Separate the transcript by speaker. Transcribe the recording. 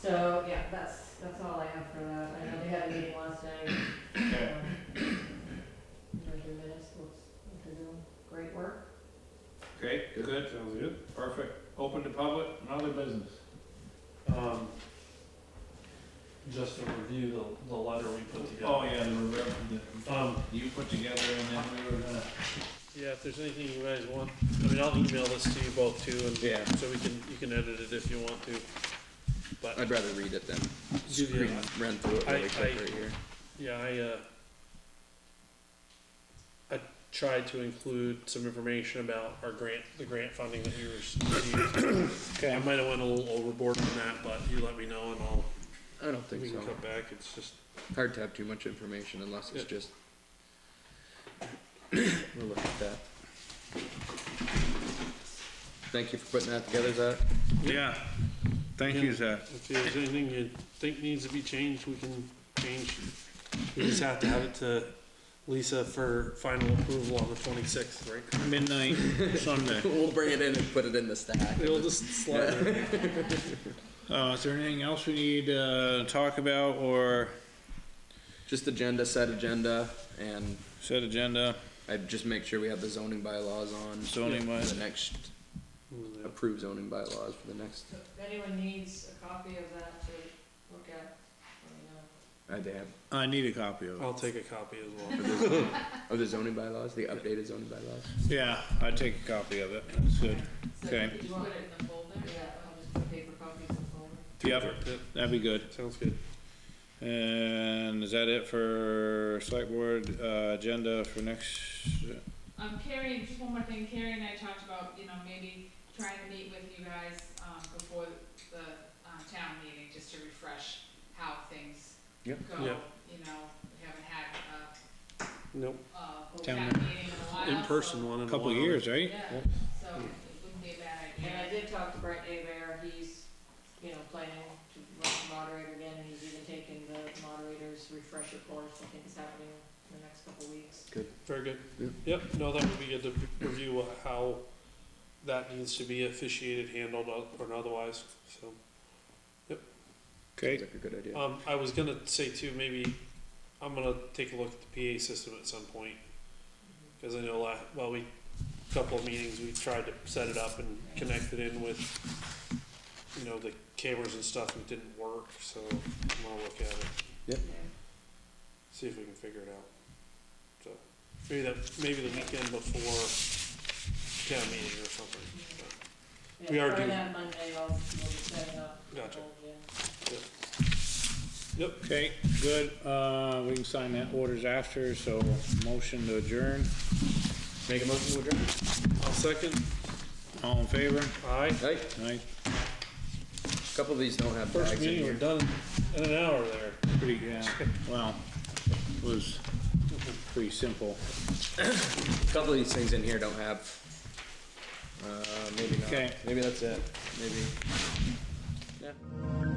Speaker 1: So, yeah, that's, that's all I have for that. I know they had a meeting last night.
Speaker 2: Okay.
Speaker 1: um, There's your minutes, looks, like they're doing great work.
Speaker 2: Great, good,
Speaker 3: Sounds good.
Speaker 2: perfect. Open to public, another business.
Speaker 3: Um, just to review the, the letter we put
Speaker 2: Oh,
Speaker 3: together.
Speaker 2: yeah, the reverend that
Speaker 3: Um,
Speaker 2: you put together and then we were gonna.
Speaker 3: yeah, if there's anything you guys want, I mean, I'll email this to you both too, and
Speaker 4: Yeah.
Speaker 3: so we can, you can edit it if you want to. But,
Speaker 4: I'd rather read it than
Speaker 3: Give you
Speaker 4: screen, run through it
Speaker 3: uh, I-
Speaker 4: really quick
Speaker 3: I-
Speaker 4: right here.
Speaker 3: yeah, I, uh, I tried to include some information about our grant, the grant funding that we received. I might have went a little overboard on that, but you let me know and I'll,
Speaker 4: I don't
Speaker 3: we
Speaker 4: think
Speaker 3: can
Speaker 4: so.
Speaker 3: cut back, it's just,
Speaker 4: Hard to have too much information unless it's
Speaker 3: Yeah.
Speaker 4: just. We'll look at that. Thank you for putting that together, Zach.
Speaker 2: Yeah, thank
Speaker 3: you,
Speaker 2: Zach.
Speaker 3: If there's anything you think needs to be changed, we can change. We just have to have it to Lisa for final approval on the twenty-sixth, right?
Speaker 2: Midnight Sunday.
Speaker 4: We'll bring it in and put it in the stack.
Speaker 3: It'll just slide. there.
Speaker 2: Uh, is there anything else we need uh, to talk about or
Speaker 4: Just agenda, set agenda, and
Speaker 2: set agenda?
Speaker 4: I'd just make sure we have the zoning bylaws on.
Speaker 2: Zoning
Speaker 4: for
Speaker 2: bylaws.
Speaker 4: The next, approved zoning bylaws for the next,
Speaker 1: So if anyone needs a copy of that to look at, let me know.
Speaker 4: I uh, they have,
Speaker 2: I need a copy of
Speaker 3: I'll take a copy as
Speaker 4: of
Speaker 3: well.
Speaker 4: the, of oh, the zoning bylaws, the updated zoning bylaws.
Speaker 2: Yeah, I'd take a copy of it. That's good. Okay.
Speaker 1: Did you want it in the folder? Yeah, I'll just put paper copies in the folder.
Speaker 2: Yep, that'd be good.
Speaker 3: Sounds good.
Speaker 2: And is that it for select board, uh, agenda for next?
Speaker 5: Um, Carrie, just one more thing, Carrie and I talked about, you know, maybe trying to meet with you guys, um, before the, um, town meeting, just to refresh how things go.
Speaker 4: Yep.
Speaker 3: Yeah.
Speaker 5: You know, we haven't had uh, a,
Speaker 3: Nope,
Speaker 5: a whole
Speaker 2: Town
Speaker 5: town meeting in a while.
Speaker 3: in-person
Speaker 5: so-
Speaker 3: one in a
Speaker 2: Couple
Speaker 3: while.
Speaker 2: years, right?
Speaker 5: Yeah, so it wouldn't be a bad
Speaker 1: And I
Speaker 5: idea.
Speaker 1: did talk to Brett Abear, he's, you know, planning to run the moderator again, and he's even taking the moderator's refresher course, I think it's happening in the next couple weeks.
Speaker 3: Very good.
Speaker 4: Yeah.
Speaker 3: Yep, no, that would be good to review what- how that needs to be officiated, handled, uh, or otherwise, so.
Speaker 2: Okay,
Speaker 4: Sounds like a good idea.
Speaker 3: Um, I was gonna say too, maybe I'm gonna take a look at the PA system at some point. Cause I know la well, we, couple of meetings, we tried to set it up and connect it in with, you know, the cameras and stuff, and it didn't work, so I'm gonna look at it, see if we can figure it out. So, maybe that, maybe the weekend before town meeting or something, but,
Speaker 1: Yeah,
Speaker 3: We are
Speaker 1: probably
Speaker 3: due-
Speaker 1: that Monday, I'll, we'll be setting up. the
Speaker 3: Gotcha.
Speaker 1: whole gym.
Speaker 3: yep.
Speaker 2: okay, good. Uh, we can sign that orders after, so motion to adjourn.
Speaker 4: Make a motion to adjourn.
Speaker 3: I'll second,
Speaker 2: All in favor?
Speaker 3: aye.
Speaker 4: Right,
Speaker 2: Aye,
Speaker 4: a couple of these don't have
Speaker 3: First
Speaker 4: bags in
Speaker 3: meeting, we're
Speaker 4: here.
Speaker 3: done in an hour there.
Speaker 2: pretty, yeah, well, it was pretty simple.
Speaker 4: A couple of these things in here don't have. Uh, maybe not.
Speaker 2: Okay.
Speaker 4: Maybe that's it, maybe.